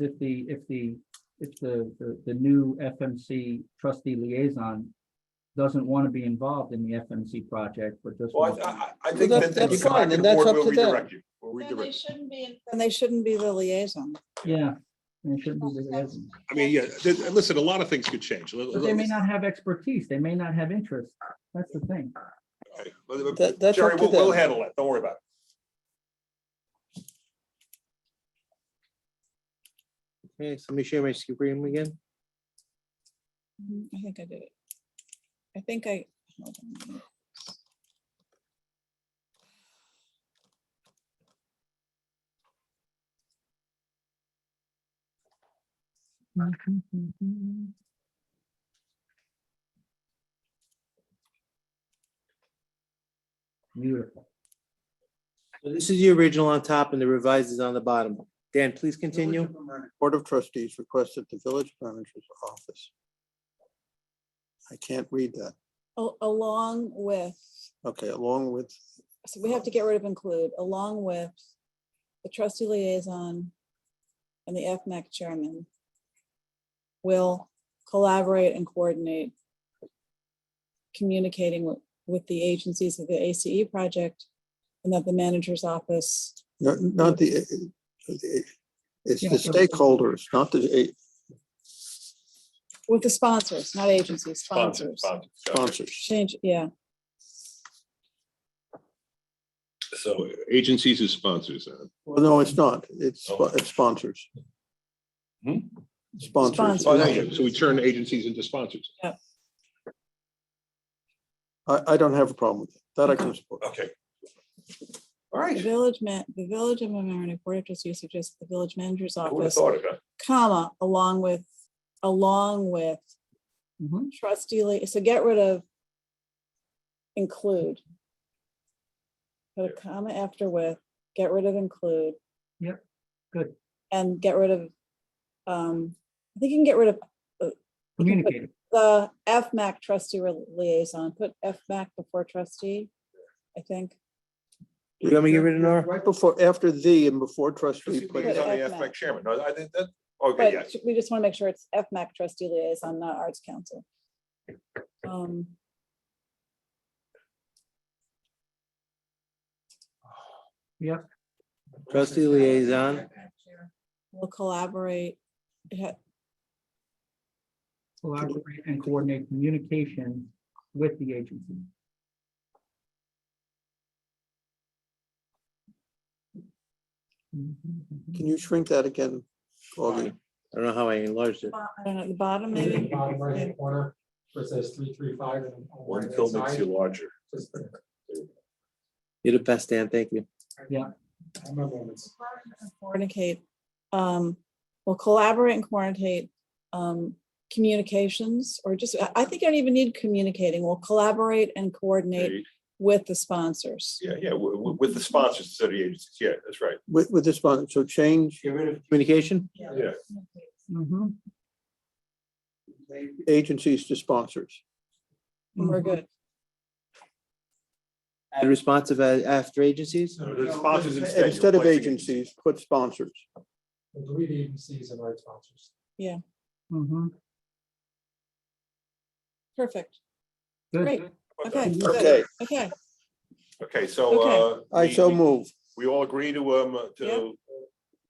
if the, if the, if the, the, the new FMC trustee liaison doesn't want to be involved in the FMC project, but just. Well, I- wants- I, I think Well, that, that- that you that's come back to fine, the and that's board, up we'll to them. redirect you. We'll Then they redirect. you. shouldn't be. in- And they shouldn't be the liaison. Yeah. and it shouldn't be the liaison. I mean, yeah, th- listen, a lot of things could change. Let- But they may let- not have expertise, they may not have interest, that's the thing. All right. Well, That- that's Jerry, up to we'll, we'll them. handle it. Don't worry about Okay, so let me share my screen again. Mm, I think I did it. I think I. hold on a minute. Beautiful. So This is the original on top and the revised is on the bottom. Dan, please continue. Board of Trustees requests that the village manager's office. I can't read that. Al- Along with, Okay, along with, so we have to get rid of include, along with the trustee liaison and the FMAC chairman will collaborate and coordinate communicating with, with the agencies of the ACE project and that the manager's office not, not the, uh, the- it's Yeah, the so- stakeholders, not the eh, With the sponsors, not agencies, it. Sponsors, sponsors. sponsors. Gotcha. sponsors. Change, yeah, So, Agencies as sponsors. uh, Well, no, it's not. It's, spo- it's sponsors. Hmm? Oh, Sponsors. Sponsors. So we turn agencies into sponsors. I, I don't have a problem with it. That I can support. okay. All the right. village man, the village of Mamaroneck Board of Trustees suggests the village manager's I would have office, thought of that. comma, along with, along with Mhm. trustee, li- so get rid of include. Put a comma after with, get rid of include. Yep, good. And get rid of, um, I think you can get rid of Communicate, the FMAC trustee re- liaison, put FMAC before trustee, I think. You want me to get rid of Nora? Right before, after the and before Trustee trustee. put Lee's it on up. the FMAC. aspect chairman. No, I think that, okay, yes. But we just want to make sure it's FMAC trustee liaison, not arts council. Um, Trustee liaison. We'll collaborate. It ha- collaborate and coordinate communication with the agency. Mm-hmm, Can you shrink that again? Augie? I don't know how I enlarged it. I don't know, at the bottom Maybe in the maybe. bottom right hand corner, where it says three, three, five. and on the One right-hand pill makes side, you larger. just- You're the best, Dan. Thank you. I remember when it's- Mm-hmm. Coordinate, um, we'll collaborate and coordinate, um, communications, or just, I, I think I don't even need communicating. We'll collaborate and coordinate with the sponsors. Yeah, yeah, wi- wi- with the sponsors, instead of the agencies. Yeah, that's right. With, with the sponsor, so change Get rid of Communication? Yeah. Mhm. agencies to sponsors. We're Mm-hmm. good. Add Responsive a- uh, after agencies? So the sponsors instead. you're Instead of placing- agencies, put sponsors. delete agencies and write sponsors. Mhm. Perfect. Good. Great. Okay. Mm-hmm. good. Okay, Okay. Okay, so. uh, I we- so we- move. We all agree to, um, Yeah. to,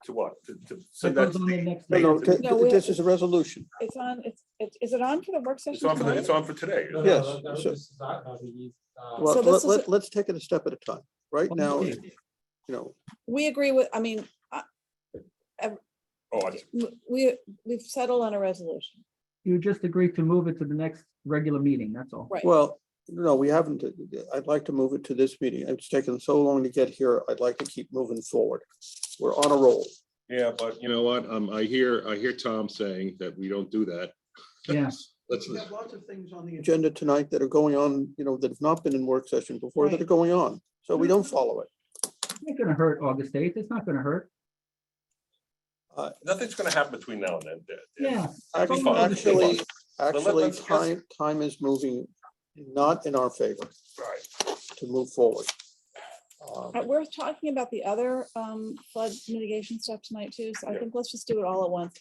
to what? To- to That send that goes to on the the- next No, no, page. th- No, th- we- this is a resolution. It's on, it's, it's, is it on for the work session? It's on for, the- tonight? it's on for today. No, no, Yes, that- that- so- this is not how we use, uh, Well, So this let, is a- let, let's take it a step at a time. Right On the now, you page. know, We agree with, I mean, Oh, I see. w- we, we've settled on a resolution, You just agreed to move it to the next regular meeting, that's all. right? well, no, we haven't. uh, I'd like to move it to this meeting. It's taken so long to get here. I'd like to keep moving forward. We're on a roll. yeah, but You know what? Um, I hear, I hear Tom saying that we don't do that. Yeah. Let's, lots of things on the. Agenda tonight that are going on, you know, that have not been in work session before that Right. are going on. So we don't follow it. It's not gonna hurt August eighth, it's not gonna hurt. nothing's gonna happen between now and then. Dan. Yeah. It'll be Act- fine. It'll be Actually, fine. let- actually, let's just- time, time is moving not in our favor All right. to move forward. Uh, um, Uh, We're talking about the other um, flood mitigation stuff tonight too, so I think let's just do it all at once.